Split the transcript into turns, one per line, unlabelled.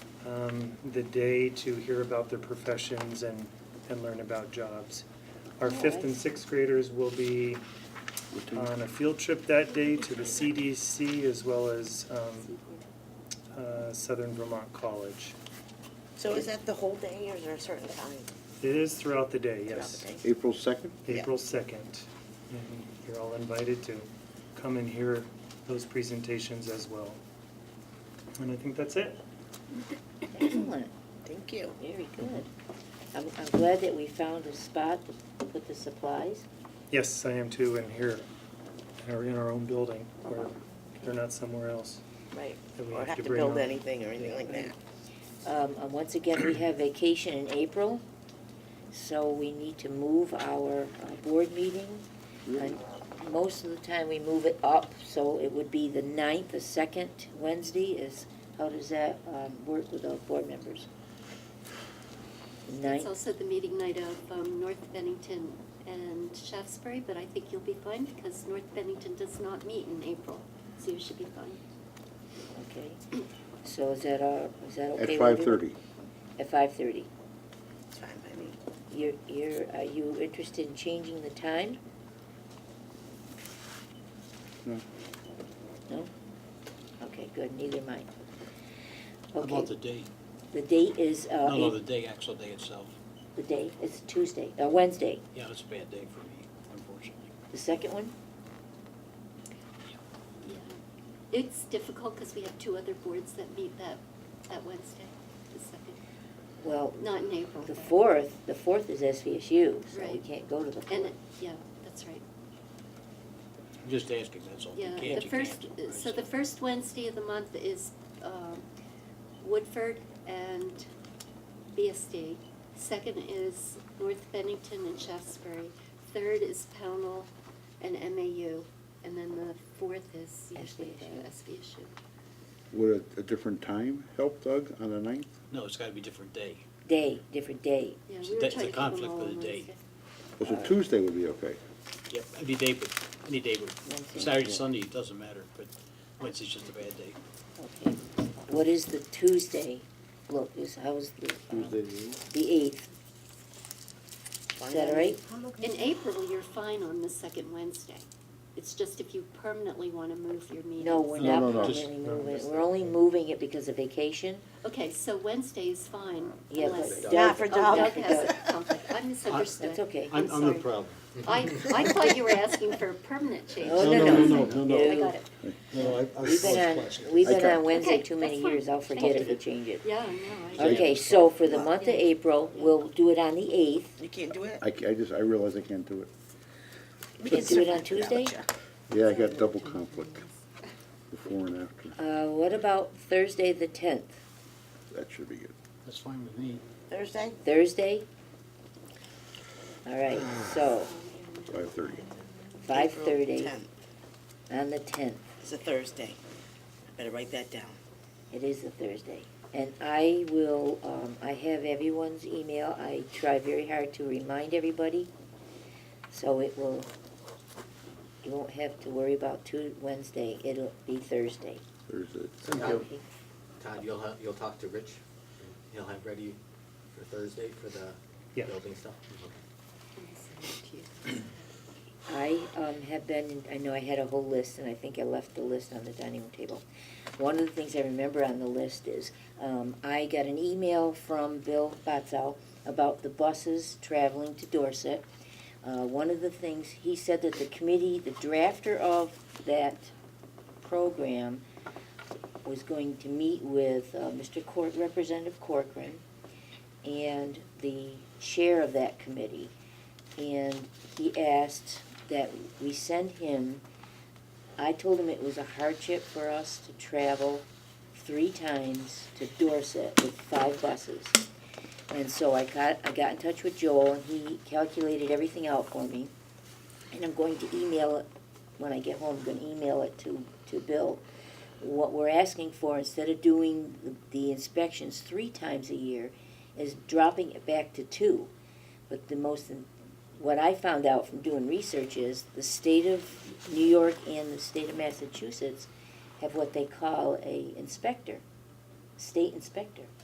um, the day to hear about their professions and, and learn about jobs. Our fifth and sixth graders will be on a field trip that day to the CDC as well as um, uh, Southern Vermont College.
So is that the whole day or is there a certain time?
It is throughout the day,
throughout
yes.
the day?
April 2nd?
Yeah.
April 2nd. And you're all invited to come and hear those presentations as well. And I think that's it.
Excellent, thank you.
Very good. I'm, I'm glad that we found a spot to put the supplies.
Yes, I am too, and here, or in our own building, where they're not somewhere else.
Right,
That we
or
have
have
to
to
bring
build
on.
anything or anything like that.
Um, and once again, we have vacation in April, so we need to move our uh, board meeting. And most of the time, we move it up, so it would be the ninth, the second Wednesday is, how does that, um, work with our board members?
It's
Ninth,
also the meeting night of um, North Bennington and Shaftesbury, but I think you'll be fine because North Bennington does not meet in April, so you should be fine.
okay. So is that our, is that
At
okay? with you?
5:30.
At five-thirty.
It's fine by me.
You're, you're, are you interested in changing the time?
No.
No? Okay, good, neither am I.
How about the
Okay,
date?
the date is, uh,
No, no,
Ap-
the day, actual day itself.
the day, it's Tuesday, uh, Wednesday,
Yeah, it's a bad day for me, unfortunately.
the second one?
Yeah. It's difficult because we have two other boards that meet that, that Wednesday, the second,
Well,
not in April.
the fourth, the fourth is SVSU, so we
Right.
can't go to the
And,
fourth.
it- yeah, that's right.
I'm just asking, that's all. If you
Yeah,
can't,
the
you
first, uh,
can't, right?
so the first Wednesday of the month is um, Woodford and BSD. Second is North Bennington and Shaftesbury. Third is Pownell and MAU. And then the fourth is usually the SVSU.
Would a- a different time help, Doug, on the 9th?
No, it's gotta be different day.
Day, different day.
Yeah,
So
we were
that's
trying
the
to keep them
conflict
all
with
on
the
Wednesday.
date.
Oh, So Tuesday would be okay.
Yep, any day, but, any day,
Wednesday.
but Saturday, Sunday, it doesn't matter, but Wednesday's just a bad day.
Okay, what is the Tuesday? Look, is, how's the? uh,
Tuesday, the eighth?
The eighth. Is that all right?
In April, you're fine on the second Wednesday. It's just if you permanently want to move your meeting.
No, we're
No,
not
no, no.
permanently moving it, we're only moving it because of vacation.
Okay, so Wednesday is fine
Yeah, but
unless.
Doug-
Not for
Oh,
Doug.
Doug has a conflict. I misunderstood.
That's okay.
I'm
I'm, I'm the
sorry.
problem.
I, I thought you were asking for a permanent change.
No,
No,
no,
no, no, no, no.
I got it.
No, I, I
We've been
uh,
on, we've been
Okay.
on Wednesday
Okay,
too many
that's fine.
years, I'll forget if we
Thank
change it.
Yeah, no, I.
Okay, so for the month of April, we'll do it on the eighth,
You can't do it?
I ca- I just, I realize I can't do it.
We
can do it on
certainly
Tuesday?
without you.
Yeah, I got double conflict, before and after.
uh, what about Thursday the tenth?
That should be good.
That's fine with me.
Thursday?
Thursday? All right, so,
5:30.
five
April
thirty
10th.
on the tenth,
It's a Thursday. Better write that down.
it is a Thursday. And I will, um, I have everyone's email, I try very hard to remind everybody, so it will, you won't have to worry about two, Wednesday, it'll be Thursday.
Thursday.
Todd,
Okay.
Todd, you'll have, you'll talk to Rich, he'll have ready for Thursday for the
Yeah.
building stuff? Okay.
I um, have been, I know I had a whole list, and I think I left the list on the dining room table. One of the things I remember on the list is, um, I got an email from Bill Batzel about the buses traveling to Dorset. Uh, One of the things, he said that the committee, the drafter of that program was going to meet with uh, Mr. Court, Representative Corcoran, and the chair of that committee. And he asked that we send him, I told him it was a hardship for us to travel three times to Dorset with five buses. And so I got, I got in touch with Joel, and he calculated everything out for me. And I'm going to email it, when I get home, I'm gonna email it to, to Bill. What we're asking for, instead of doing the- the inspections three times a year, is dropping it back to two. But the most, what I found out from doing research is the state of New York and the state of Massachusetts have what they call a inspector, state inspector.